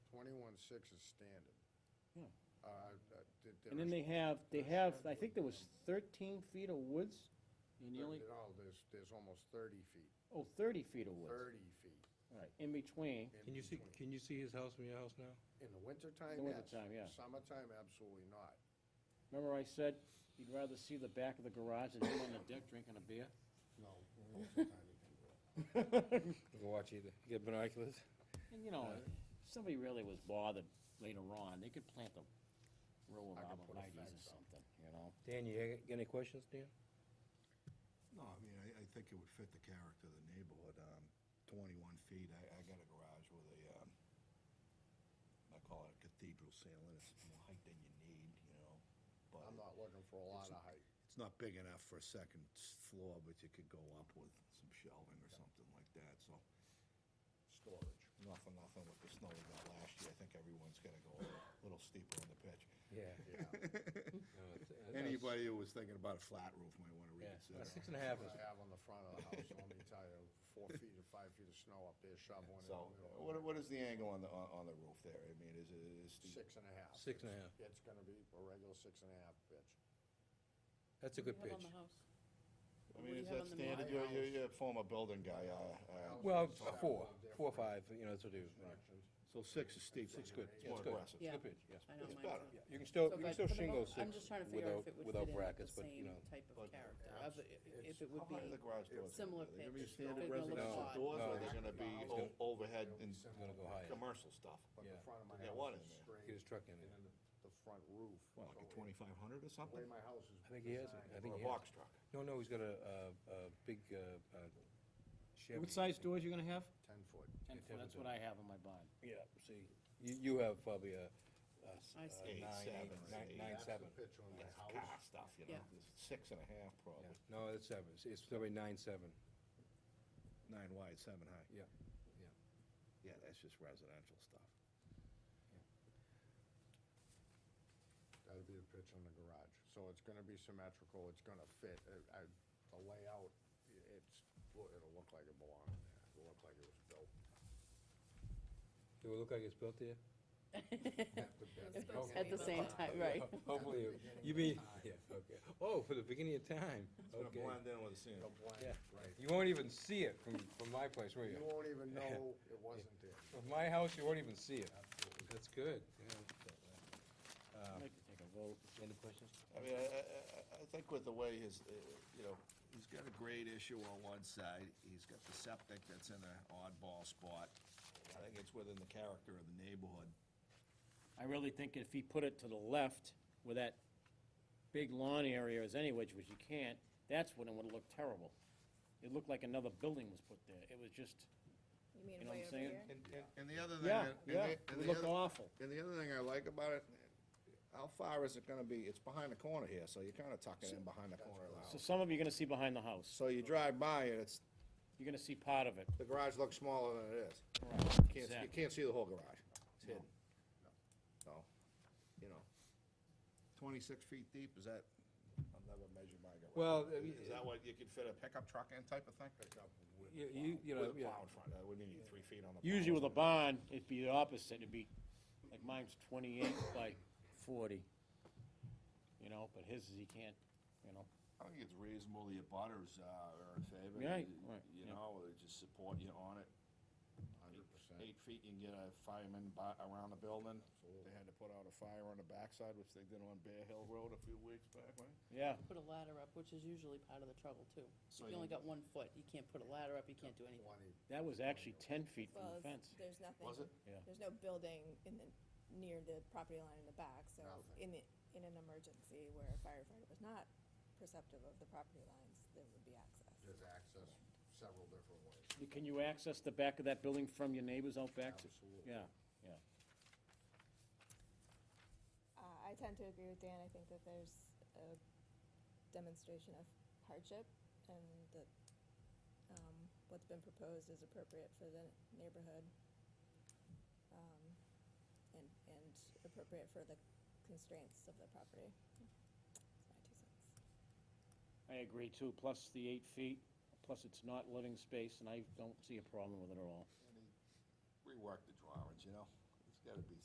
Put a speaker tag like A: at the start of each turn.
A: twenty-one-six is standard.
B: Yeah.
A: Uh, I- I- there
B: Hmm. And then
A: is-
B: they have, they
A: there's
B: have,
A: hardwood
B: I think there was thirteen feet of woods, and the only,
A: No, there's, there's almost thirty feet,
B: oh, thirty feet of woods,
A: thirty feet
B: right, in between,
A: in
C: Can you see,
A: between.
C: can you see his house from your house now?
A: In the wintertime,
B: In the
A: yes.
B: wintertime, yeah.
A: Summertime, absolutely not.
B: remember I said you'd rather see the back of the garage than him on the deck drinking a beer?
A: No. in the wintertime you can't do it.
C: Can watch either. You got binoculars?
B: And you know, if somebody really was bothered later on, they could plant a row of
A: I could put a
B: arborvitae's or
A: fence up.
B: something, you know?
C: Dan, you got any questions, Dan?
D: No, I mean, I, I think it would fit the character of the neighborhood, um, twenty-one feet, I, I got a garage with a, um, I call it a cathedral ceiling, it's more height than you need, you know, but
A: I'm not looking for a lot of height.
D: it's not big enough for a second s- floor, but you could go up with some shelving or something like that, so. Storage. Nothing, nothing with the snow we got last year, I think everyone's gonna go a little steeper on the pitch.
C: Yeah. uh,
A: Yeah.
D: Anybody who was thinking about a flat roof might wanna
C: Yeah,
D: reconsider.
C: six and a half
A: What
C: is,
A: I have on the front of the house, let me tell you, four feet or five feet of snow up there shoveling in
D: So, uh,
A: the middle.
D: what, what is the angle on the, on, on the roof there? I mean, is it, is the,
A: Six and a half.
C: Six and a half.
A: It's gonna be a regular six and a half pitch.
C: that's a good
E: What do
C: pitch.
E: you have on the house?
D: I
E: What do
D: mean,
E: you
D: is
E: have
D: that
E: on the
D: standard?
E: model?
D: You're, you're, you're a former building guy, uh, uh.
C: Well, four, four or five, you know, that's what it is.
A: Constructions.
D: So six is steep.
C: It's good.
D: It's more
C: good.
D: aggressive.
C: It's a
E: Yeah.
C: good pitch, yes.
E: I know
D: It's
E: mine's
D: better.
E: not.
C: Yeah, You can still,
E: So,
C: you can
E: but
C: still
E: for the
C: shingle
E: mo-
C: six
E: I'm just trying to figure out
C: without,
E: if it would fit in
C: without
E: with
C: brackets,
E: the
C: but, you
E: same
C: know.
E: type of
D: But-
E: character,
A: Yeah,
E: of the- i- if it would
D: How high are
E: be,
D: the garage doors?
E: similar
D: Are they gonna be
E: pitch,
D: standard
E: big little
D: residential
E: shot.
D: doors, or are
C: No.
D: they gonna be
A: It's
D: o-
C: gonna-
D: overhead
A: It'll be
D: and
A: simple.
C: Gonna go higher.
D: commercial stuff?
A: But the
C: Yeah.
A: front of my
D: They got
A: house
D: one
A: is
D: in there.
C: Get his
A: straight,
C: truck in there.
A: and the, the front roof.
D: What, like
A: so
D: a
A: it-
D: twenty-five hundred or
A: The way
D: something?
A: my house is.
C: I think he has it.
A: designed,
C: I think
D: Or a
C: he has.
D: box truck?
C: No, no, he's got a, a, a big, uh, uh, Chevy.
B: What size doors you gonna have?
A: Ten foot.
B: Ten
C: Yeah,
B: foot, that's what I have in my barn.
C: Yeah, see, you, you have probably a, a s-
E: I
C: a
E: see.
C: nine,
D: Eight,
C: eight,
D: seven,
C: nine,
D: eight.
C: nine,
A: That's the
C: seven.
A: pitch on my
D: That's
A: house.
D: car stuff, you know,
E: Yeah.
D: It's six and a half
C: Yeah.
D: probably.
C: No, it's seven, It's- it's probably nine, seven,
D: Nine wide, seven high.
C: yeah.
D: Yeah, that's just residential stuff.
A: That'd be the pitch on the garage. So it's gonna be symmetrical, it's gonna fit. uh, I- I, the layout, i- it's, well, it'll look like it belonged there. It'll look like it was built.
C: Do it look like it's built there?
E: at the same time, right?
C: Hopefully, it- you mean, yeah, okay. Oh, for the beginning of time,
D: It's gonna
C: okay.
D: blend in with the ceiling.
A: It'll blend,
C: Yeah.
A: right.
C: You won't even see it from, from my place, will
A: You
C: you?
A: won't even know it wasn't there.
C: From my house, you won't even see it. That's good, yeah.
A: Oh.
B: I'd
C: Um,
B: like to take a vote.
C: Any questions?
D: I mean, I, I, I- I think with the way his, uh, you know, he's got a grade issue on one side, he's got the septic that's in an oddball spot. I think it's within the character of the neighborhood.
B: I really think if he put it to the left where that big lawn area is anyway, which you can't, that's when it would look terrible. It looked like another building was put there. It was just,
E: You mean
B: You know what I'm saying?
D: And, and- and the other thing.
B: yeah,
D: and the-
B: yeah,
D: and
B: it
D: the
B: would look
D: other-
B: awful.
D: And the other thing I like about it, how far is it gonna be? It's behind the corner here, so you're kinda tucking in behind the corner of the
B: So
D: house.
B: some of you're gonna see behind the house.
D: So you drive by and it's,
B: You're gonna see part of it.
D: the garage looks smaller than it is. Can't, see- you
B: Exactly.
D: can't see the whole garage. It's hidden. So, you know, twenty-six feet deep, is that? I've never measured my garage.
C: Well, I mean,
D: Is that what you could fit a pickup truck in type of thing?
A: Pick up with
C: You, you, you know,
D: With a
C: yeah.
D: plow in front, I wouldn't need three feet on the. plow.
B: Usually with a barn, it'd be the opposite, it'd be, like mine's twenty-eight by forty. You know, but his is, he can't, you know,
D: I think it's reasonable the abutters uh, are in favor.
B: Right,
D: You-
B: right,
D: You
B: yeah.
D: know, they just support you on it.
A: hundred percent.
D: Eight feet, you can get a fireman by, around the building. They had to put out a fire on the backside, which they did on Bear Hill Road a few weeks back, right?
B: yeah.
E: Put a ladder up, which is usually part of the trouble too.
D: So
E: If
D: you-
E: you only got one foot, you can't put a ladder up, you can't do anything.
A: Twenty,
B: That was actually ten feet from
F: Well,
B: the fence.
F: it's- there's nothing.
D: Was it?
B: Yeah.
F: There's no building in the, near the property line in the back, so
D: Oh,
F: if
A: Nothing.
F: in the, in an emergency where a firefighter was not perceptive of the property lines, there would be access.
A: there's access several different ways.
B: Can you access the back of that building from your neighbors out back? to-
A: Absolutely.
B: Yeah, yeah.
F: Uh, I tend to agree with Dan, I think that there's a demonstration of hardship and that, um, what's been proposed is appropriate for the neighborhood. Um, and, and appropriate for the constraints of the property. That's my two cents.
B: I agree too, plus the eight feet, plus it's not living space, and I don't see a problem with it at all.
D: Rework the drawings, you know? It's gotta be